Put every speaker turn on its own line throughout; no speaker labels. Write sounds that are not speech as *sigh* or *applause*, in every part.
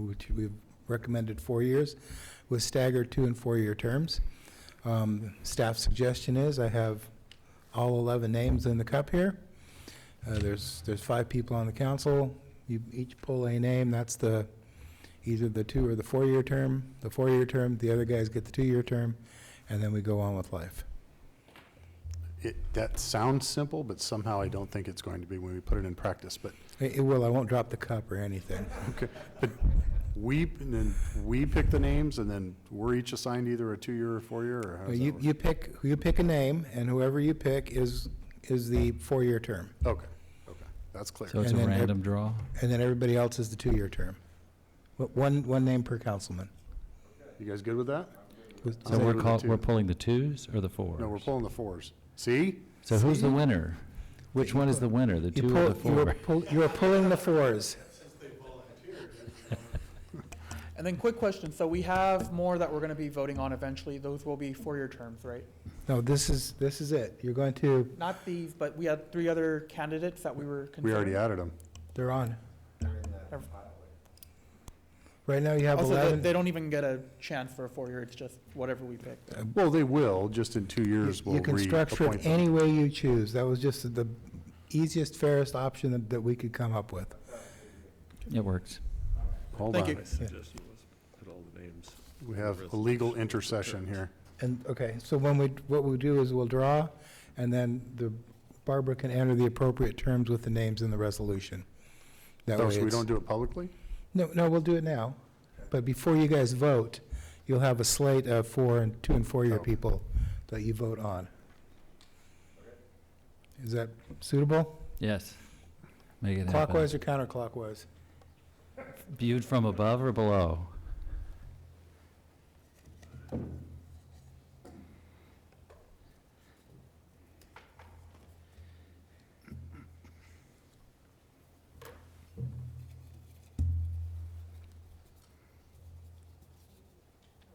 which we've recommended four years, with staggered two and four-year terms. Um, Staff suggestion is, I have all 11 names in the cup here. Uh, There's, there's five people on the council. You each pull a name, that's the, either the two or the four-year term, the four-year term, the other guys get the two-year term, and then we go on with life.
It, that sounds simple, but somehow I don't think it's going to be when we put it in practice, but
It it will, I won't drop the cup or anything.
Okay, but we, and then we pick the names, and then we're each assigned either a two-year or four-year, or how does that
You,
work?
you pick, you pick a name, and whoever you pick is, is the four-year term.
Okay, okay, that's clear.
So it's a
And then ev-
random draw?
And then everybody else is the two-year term. Wh- One, one name per councilman.
You guys good with that?
So
I'll
we're
do the
call,
two.
we're pulling the twos or the fours?
No, we're pulling the fours. See?
So who's the winner? Which one is the winner, the
You
two or the
pull- you are
four?
pull- You are pulling the fours.
And then quick question, so we have more that we're gonna be voting on eventually, those will be four-year terms, right?
No, this is, this is it. You're going to,
Not these, but we had three other candidates that we were
We
considering.
already added them.
they're on.
Ev-
Right now, you have
Also, they,
11.
they don't even get a chance for a four-year, it's just whatever we pick.
Well, they will, just in two
You-
years, we'll
Uh, You can structure
reappoint
it
them.
any way you choose. That was just the easiest, fairest option that- that we could come up with.
It works.
Hold
Thank
on,
you.
suggest you list- put all the names.
we have a legal intercession here.
And, okay, so when we, what we'll do is we'll draw, and then the, Barbara can enter the appropriate terms with the names in the resolution. That
Oh,
way
so we
it's-
don't do it publicly?
No, no, we'll do it now. But before you guys vote, you'll have a slate of four and, two and four-year
Oh.
people that you vote on. Is that suitable?
Yes. Make it happen.
Clockwise or counterclockwise?
Viewed from above or below?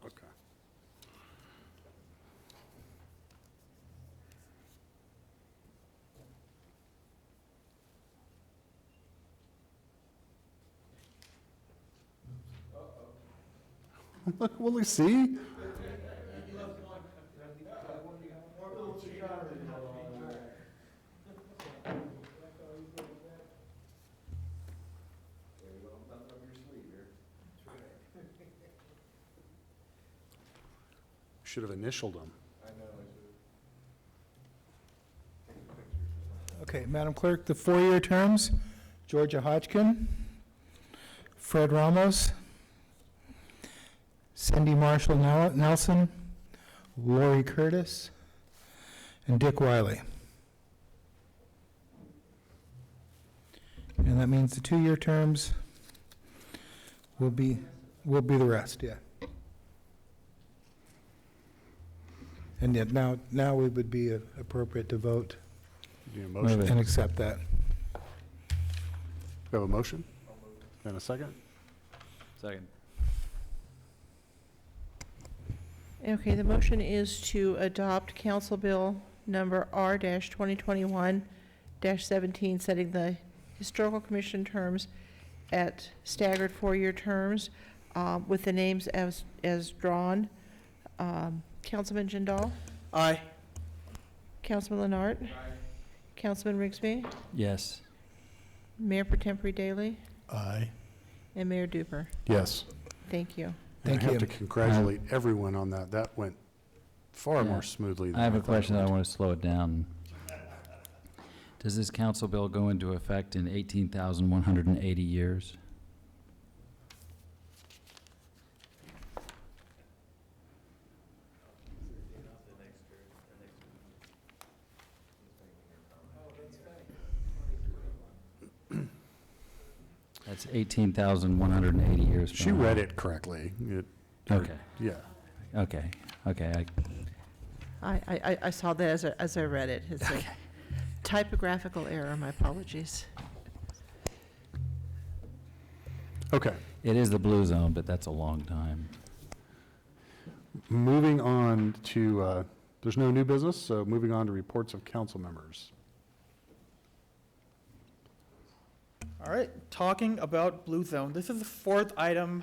Okay. Look, will we see? Should have initialed them.
Okay, Madam Clerk, the four-year terms, Georgia Hodgkin, Fred Ramos, Cindy Marshall Nel- Nelson, Lori Curtis, and Dick Wiley. And that means the two-year terms will be, will be the rest, yeah. And yet now, now it would be uh, appropriate to vote
Do you have a motion?
Move it.
and accept that.
We have a motion? And a second?
Second.
Okay, the motion is to adopt Council Bill Number R-2021-17, setting the Historical Commission terms at staggered four-year terms uh, with the names as, as drawn. Um, Councilman Jindal?
Aye.
Councilman Leonard? Councilman Rigsby?
Yes.
Mayor Per Tempore Daley?
Aye.
And Mayor Duper.
Yes.
Thank you.
And
Thank you.
I have to congratulate everyone on that. That went far
Yeah.
more smoothly than
I have a
thought it
question that I
would.
want to slow it down. Does this council bill go into effect in 18,180 years? That's 18,180 years.
She read it correctly. It- or-
Uh-huh. Okay,
Yeah.
okay, okay. I-
I, I, I- I saw that as, I- as I read it. It's *laughs* a typographical error, my apologies.
Okay.
It is the blue zone, but that's a long time.
Moving on to, uh, there's no new business, so moving on to reports of council members.
All right, talking about Blue Zone, this is the fourth item